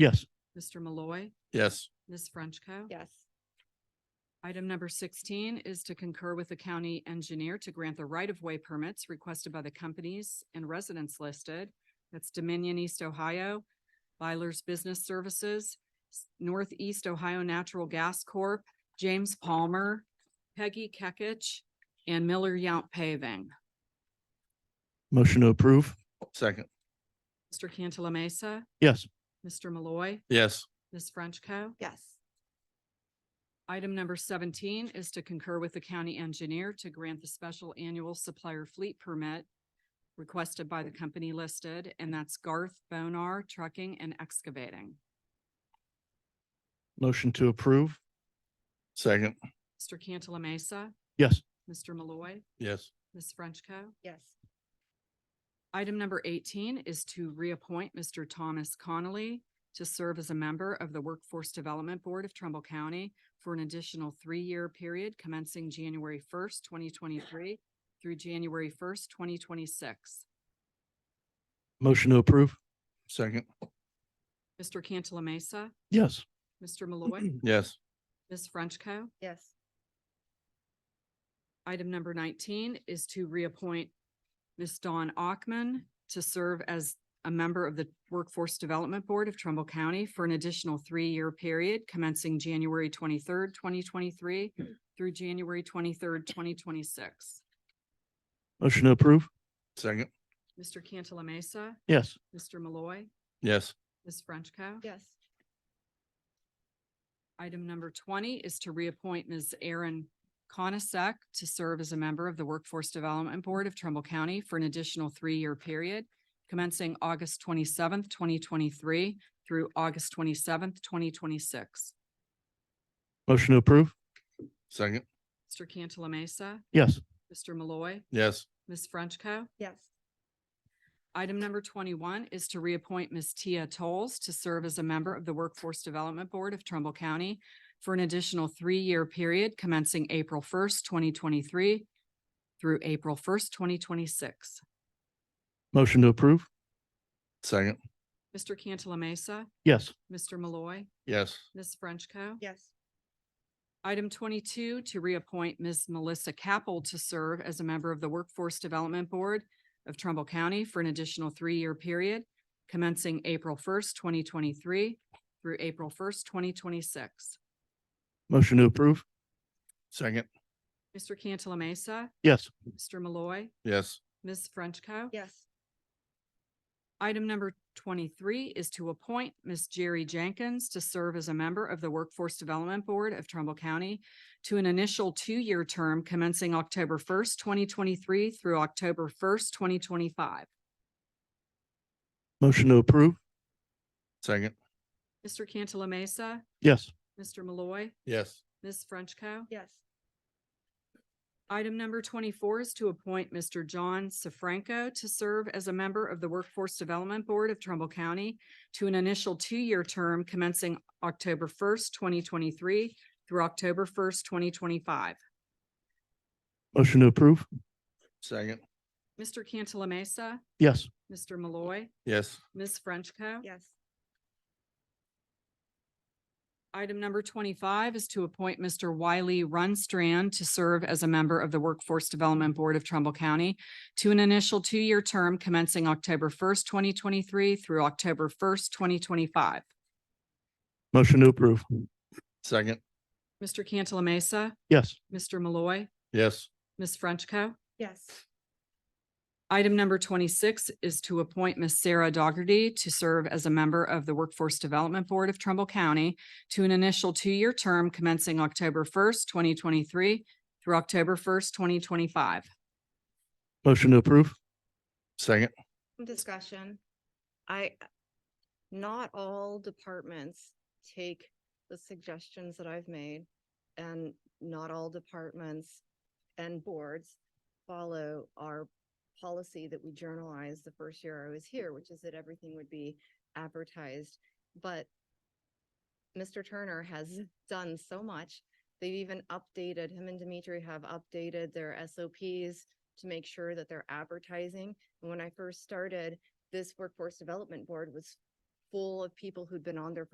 Yes. Mr. Malloy, Yes. Ms. Frenchco. Yes. Item number sixteen is to concur with the county engineer to grant the right-of-way permits requested by the companies and residents listed. That's Dominion East Ohio, Byler's Business Services, S- Northeast Ohio Natural Gas Corp., James Palmer, Peggy Kekich, and Miller Yount Paving. Motion to approve. Second. Mr. Cantala Mesa, Yes. Mr. Malloy, Yes. Ms. Frenchco. Yes. Item number seventeen is to concur with the county engineer to grant the special annual supplier fleet permit requested by the company listed, and that's Garth Bonar Trucking and Excavating. Motion to approve. Second. Mr. Cantala Mesa, Yes. Mr. Malloy, Yes. Ms. Frenchco. Yes. Item number eighteen is to reappoint Mr. Thomas Connolly to serve as a member of the Workforce Development Board of Trumbull County for an additional three-year period commencing January first, twenty twenty-three through January first, twenty twenty-six. Motion to approve. Second. Mr. Cantala Mesa, Yes. Mr. Malloy, Yes. Ms. Frenchco. Yes. Item number nineteen is to reappoint Ms. Dawn Ockman to serve as a member of the Workforce Development Board of Trumbull County for an additional three-year period commencing January twenty-third, twenty twenty-three through January twenty-third, twenty twenty-six. Motion to approve. Second. Mr. Cantala Mesa, Yes. Mr. Malloy, Yes. Ms. Frenchco. Yes. Item number twenty is to reappoint Ms. Erin Conasec to serve as a member of the Workforce Development Board of Trumbull County for an additional three-year period commencing August twenty-seventh, twenty twenty-three through August twenty-seventh, twenty twenty-six. Motion to approve. Second. Mr. Cantala Mesa, Yes. Mr. Malloy, Yes. Ms. Frenchco. Yes. Item number twenty-one is to reappoint Ms. Tia Tolles to serve as a member of the Workforce Development Board of Trumbull County for an additional three-year period commencing April first, twenty twenty-three through April first, twenty twenty-six. Motion to approve. Second. Mr. Cantala Mesa, Yes. Mr. Malloy, Yes. Ms. Frenchco. Yes. Item twenty-two, to reappoint Ms. Melissa Capel to serve as a member of the Workforce Development Board of Trumbull County for an additional three-year period commencing April first, twenty twenty-three through April first, twenty twenty-six. Motion to approve. Second. Mr. Cantala Mesa, Yes. Mr. Malloy, Yes. Ms. Frenchco. Yes. Item number twenty-three is to appoint Ms. Jerry Jenkins to serve as a member of the Workforce Development Board of Trumbull County to an initial two-year term commencing October first, twenty twenty-three through October first, twenty twenty-five. Motion to approve. Second. Mr. Cantala Mesa, Yes. Mr. Malloy, Yes. Ms. Frenchco. Yes. Item number twenty-four is to appoint Mr. John Sefranco to serve as a member of the Workforce Development Board of Trumbull County to an initial two-year term commencing October first, twenty twenty-three through October first, twenty twenty-five. Motion to approve. Second. Mr. Cantala Mesa, Yes. Mr. Malloy, Yes. Ms. Frenchco. Yes. Item number twenty-five is to appoint Mr. Wiley Runstrand to serve as a member of the Workforce Development Board of Trumbull County to an initial two-year term commencing October first, twenty twenty-three through October first, twenty twenty-five. Motion to approve. Second. Mr. Cantala Mesa, Yes. Mr. Malloy, Yes. Ms. Frenchco. Yes. Item number twenty-six is to appoint Ms. Sarah Dougherty to serve as a member of the Workforce Development Board of Trumbull County to an initial two-year term commencing October first, twenty twenty-three through October first, twenty twenty-five. Motion to approve. Second. Discussion. I, not all departments take the suggestions that I've made and not all departments and boards follow our policy that we journalized the first year I was here, which is that everything would be advertised. But Mr. Turner has done so much. They've even updated, him and Dimitri have updated their SOPs to make sure that they're advertising. And When I first started, this workforce development board was full of people who'd been on there for